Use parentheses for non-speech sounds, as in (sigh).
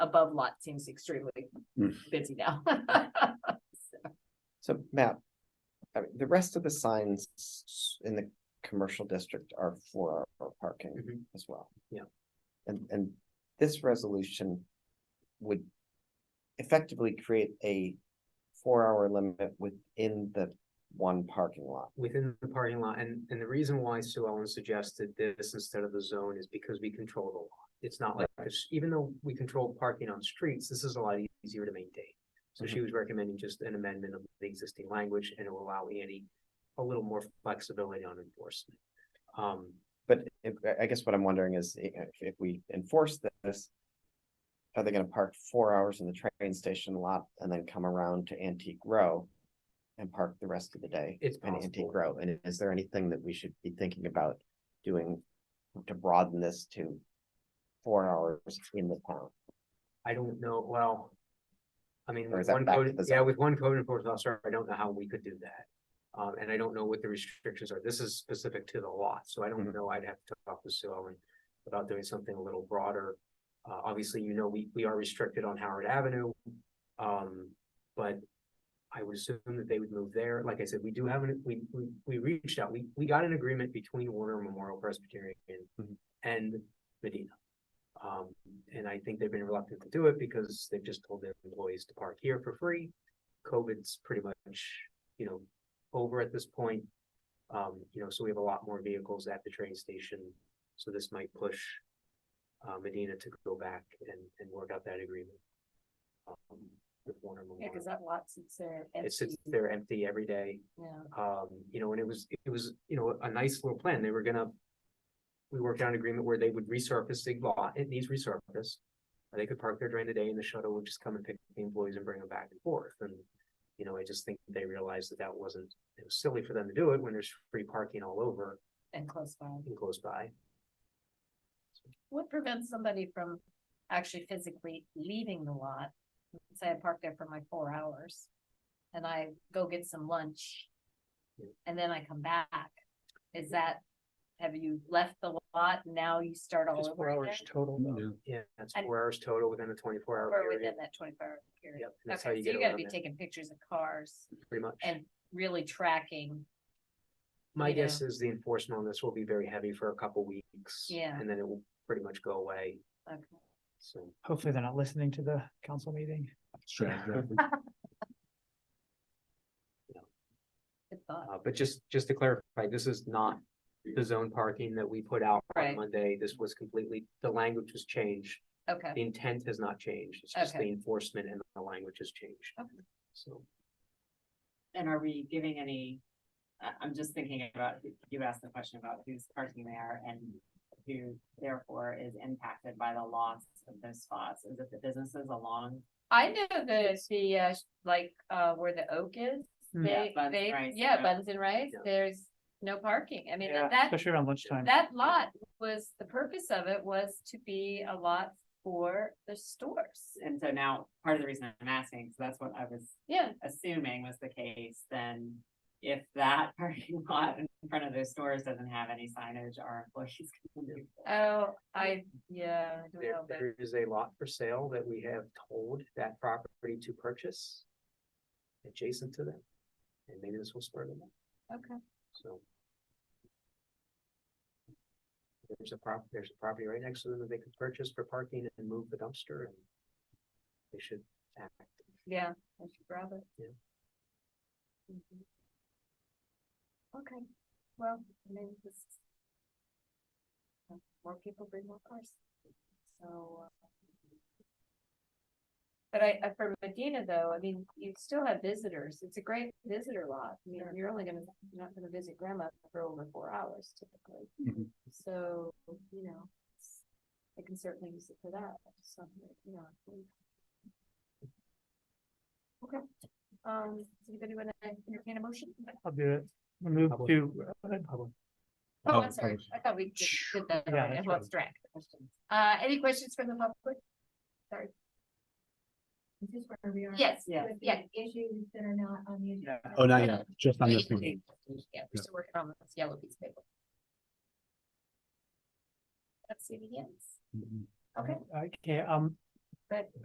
above lot seems extremely Hmm. busy now. (laughs) So Matt, I mean, the rest of the signs s- in the commercial district are for our parking Mhm. as well. Yeah. And, and this resolution would effectively create a four-hour limit within the one parking lot. within the parking lot, and, and the reason why Sue Ellen suggested this instead of the zone is because we control the lot. It's not like, this- even though we control parking on streets, this is a lot easier to maintain. So she was recommending just an amendment of the existing language, and it will allow Annie a little more flexibility on enforcement. Um, But if, I- I guess what I'm wondering is i- if, if we enforce this. Are they gonna park four hours in the train station lot and then come around to Antique Row? And park the rest of the day? It's in possible. Antique Row, and is there anything that we should be thinking about doing to broaden this to? Four hours in the town, I don't know, well. I mean, Or is with that one back to code, the yeah, zone? with one code enforcement officer, I don't know how we could do that. Um, and I don't know what the restrictions are. This is specific to the lot, so I don't Mhm. know. I'd have to talk to Sue Ellen about doing something a little broader. Uh, obviously, you know, we, we are restricted on Howard Avenue. Um, but I would assume that they would move there. Like I said, we do have, an we, we, we reached out, we, we got an agreement between Warner Memorial Presbyterian Mhm. and Medina. Um, and I think they've been reluctant to do it because they've just told their employees to park here for free. COVID's pretty much, you know, over at this point. Um, you know, so we have a lot more vehicles at the train station, so this might push uh, Medina to go back and, and work out that agreement. um, With Warner Yeah, Memorial. cause that lot sits there It sits empty, there empty every day, yeah, um, you know, and it was, it was, you know, a nice little plan, they were gonna. We worked out an agreement where they would resurface the lot, it needs resurface. They could park there during the day and the shuttle would just come and pick the employees and bring them back and forth, and. You know, I just think they realized that that wasn't, it was silly for them to do it when there's free parking all over and close by. and close by. What prevents somebody from actually physically leaving the lot? Say I park there for my four hours and I go get some lunch and then I come back. Is that, have you left the lot? Now you start all Just over four again? hours total though. Yeah, that's And- four hours total within a twenty-four hour Or within period, that twenty-four hour period? Yep, Okay, that's so how you get you gotta around be it. taking pictures of cars pretty much. and really tracking. My you guess is the enforcement on this will be very heavy for a couple weeks. Yeah. And then it will pretty much go away, Okay. so. Hopefully they're not listening to the council meeting. Good thought. Uh, but just, just to clarify, this is not the zone parking that we put out Right. on Monday. This was completely, the language was changed. Okay. The intent has not changed. It's just the Okay. enforcement and the language has changed. Okay. So, And are we giving any, I, I'm just thinking about, you asked the question about who's parking there and who therefore is impacted by the loss of those spots. Is it the businesses along? I know the, the, uh, sh- like, uh, where the oak is, Hmm. Yeah, they, Buns and they, Rice, yeah, yeah. Buns and Rice, Yeah. there's no parking, I mean, Yeah, that, Especially around lunchtime. that lot was, the purpose of it was to be a lot for the stores. And so now, part of the reason I'm asking, so that's what I was Yeah, assuming was the case, then if that (laughs) parking lot in front of those stores doesn't have any signage, our employees can do. oh, I, yeah, I don't there, know, but there is a lot for sale that we have told that property to purchase adjacent to them. And maybe this will spur them on. okay, So. There's a prop, there's a property right next to them that they could purchase for parking and move the dumpster and. They should act. yeah, I should grab it. Yeah. Mhm. Okay, well, I mean, this. uh, More people bring more cars, so. uh, But I, I- for Medina though, I mean, you still have visitors, it's a great visitor lot, I mean, you're only gonna, you're not gonna visit grandma for over four hours typically. Mhm. So, you know, it's- I can certainly use it for that, so, you know. I think. Okay, um, does anybody wanna entertain a motion? I'll do it. We Move Public. to, uh, Oh, Oh, I'm sorry, sorry. I thought we did did that Yeah, already, I that's lost track. Uh, any questions from the public? Sorry. Is this where we are? Yes, Yeah. With the yeah. Issues that are not on the. agenda? Oh, not yet, just on this one. Yeah, we're still working on this yellow piece of paper. Let's see the hands. Okay. okay, um,